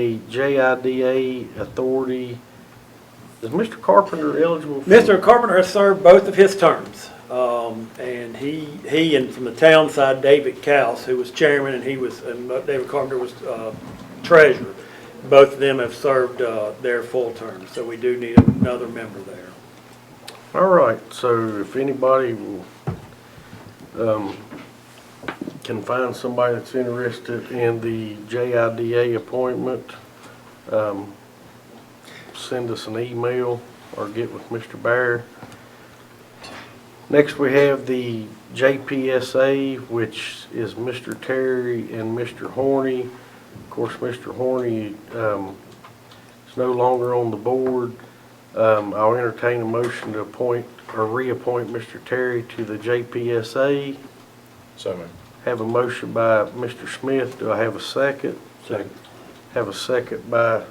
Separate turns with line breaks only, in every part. The JIDA authority, is Mr. Carpenter eligible? for-
Mr. Carpenter has served both of his terms, um, and he, he and from the town side, David Kous, who was chairman, and he was, and David Carpenter was uh, treasurer. Both of them have served uh, their full term, so we do need another member there.
All right, so if anybody will, um, can find somebody that's interested in the JIDA appointment, um, send us an email or get with Mr. Bear. Next, we have the JPSA, which is Mr. Terry and Mr. Horny. Of course, Mr. Horny, um, is no longer on the board. Um, I'll entertain a motion to appoint or reappoint Mr. Terry to the JPSA.
So moved.
Have a motion by Mr. Smith. Do I have a second?
Second.
Have a second by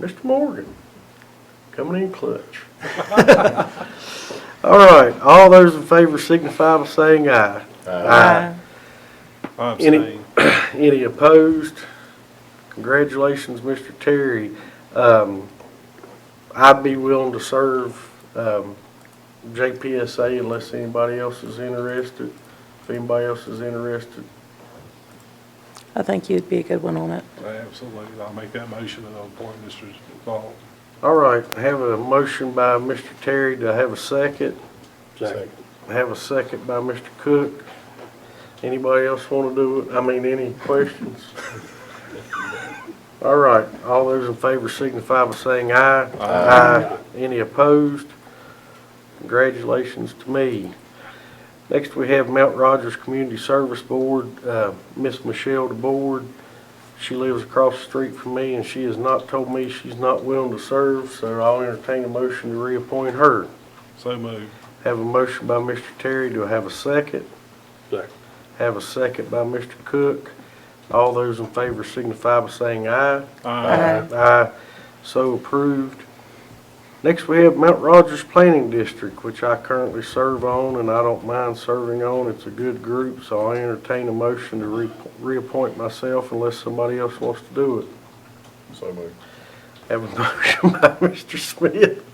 Mr. Morgan. Coming in clutch. All right, all those in favor signify by saying aye.
Uh,
Aye.
I
Any-
abstain.
Any opposed? Congratulations, Mr. Terry. Um, I'd be willing to serve um, JPSA unless anybody else is interested. If anybody else is interested,
I think you'd be a good one on it.
Absolutely. I'll make that motion and I'll appoint Mr. Ball.
All right, I have a motion by Mr. Terry. Do I have a second?
Second.
I have a second by Mr. Cook. Anybody else want to do it? I mean, any questions? All right, all those in favor signify by saying aye. Aye. Any opposed? Congratulations to me. Next, we have Mount Rogers Community Service Board, uh, Miss Michelle DeBoard. She lives across the street from me, and she has not told me she's not willing to serve, so I'll entertain a motion to reappoint her.
So moved.
Have a motion by Mr. Terry. Do I have a second?
Second.
Have a second by Mr. Cook. All those in favor signify by saying aye.
Aye.
Aye. So approved. Next, we have Mount Rogers Planning District, which I currently serve on, and I don't mind serving on. It's a good group, so I entertain a motion to re- reappoint myself unless somebody else wants to do it.
So moved.
Have a motion by Mr. Smith.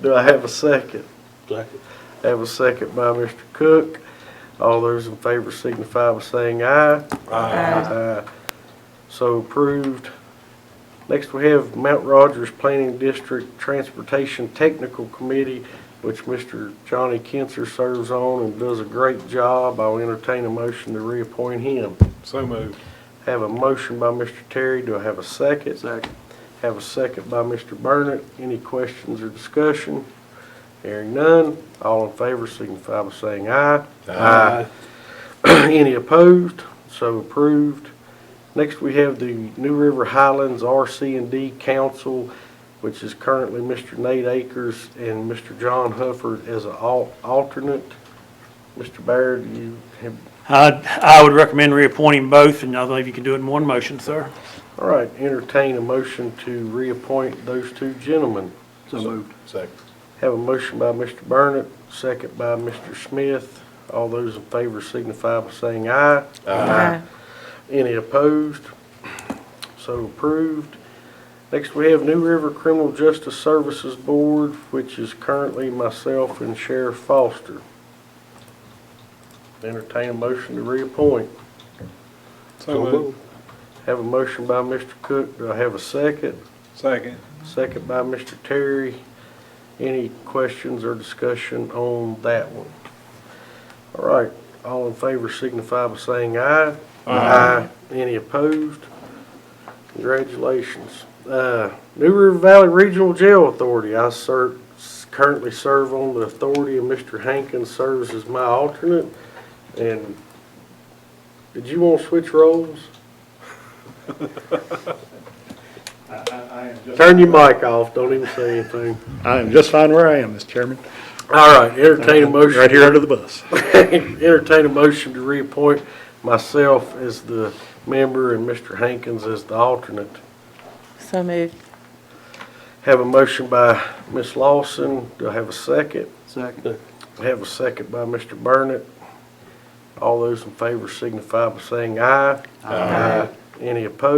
Do I have a second?
Second.
Have a second by Mr. Cook. All those in favor signify by saying aye. Aye. So approved. Next, we have Mount Rogers Planning District Transportation Technical Committee, which Mr. Johnny Kinzer serves on and does a great job. I'll entertain a motion to reappoint him.
So moved.
Have a motion by Mr. Terry. Do I have a second? Second. Have a second by Mr. Burnett. Any questions or discussion? Hearing none. All in favor signify by saying aye.
Aye.
Any opposed? So approved. Next, we have the New River Highlands RC and D Council, which is currently Mr. Nate Akers and Mr. John Hufford as an al- alternate. Mr. Baird, you have
I, I would recommend reappointing both, and I believe you can do it in one motion, sir.
All right, entertain a motion to reappoint those two gentlemen.
So moved. Second.
Have a motion by Mr. Burnett, second by Mr. Smith. All those in favor signify by saying aye. Any opposed? So approved. Next, we have New River Criminal Justice Services Board, which is currently myself and Sheriff Foster. Entertain a motion to reappoint.
So moved.
Have a motion by Mr. Cook. Do I have a second?
Second.
Second by Mr. Terry. Any questions or discussion on that one? All right, all in favor signify by saying aye. Aye. Any opposed? Congratulations. Uh, New River Valley Regional Jail Authority, I ser- currently serve on the authority and Mr. Hankins serves as my alternate. And did you want to switch roles? Turn your mic off, don't even say anything.
I am just fine where I am, Mr. Chairman.
All right, entertain a motion.
Right here under the bus.
Entertain a motion to reappoint myself as the member and Mr. Hankins as the alternate.
So moved.
Have a motion by Ms. Lawson. Do I have a second?
Second.
I Have a second by Mr. Burnett. All those in favor signify by saying aye. Aye. Any opposed?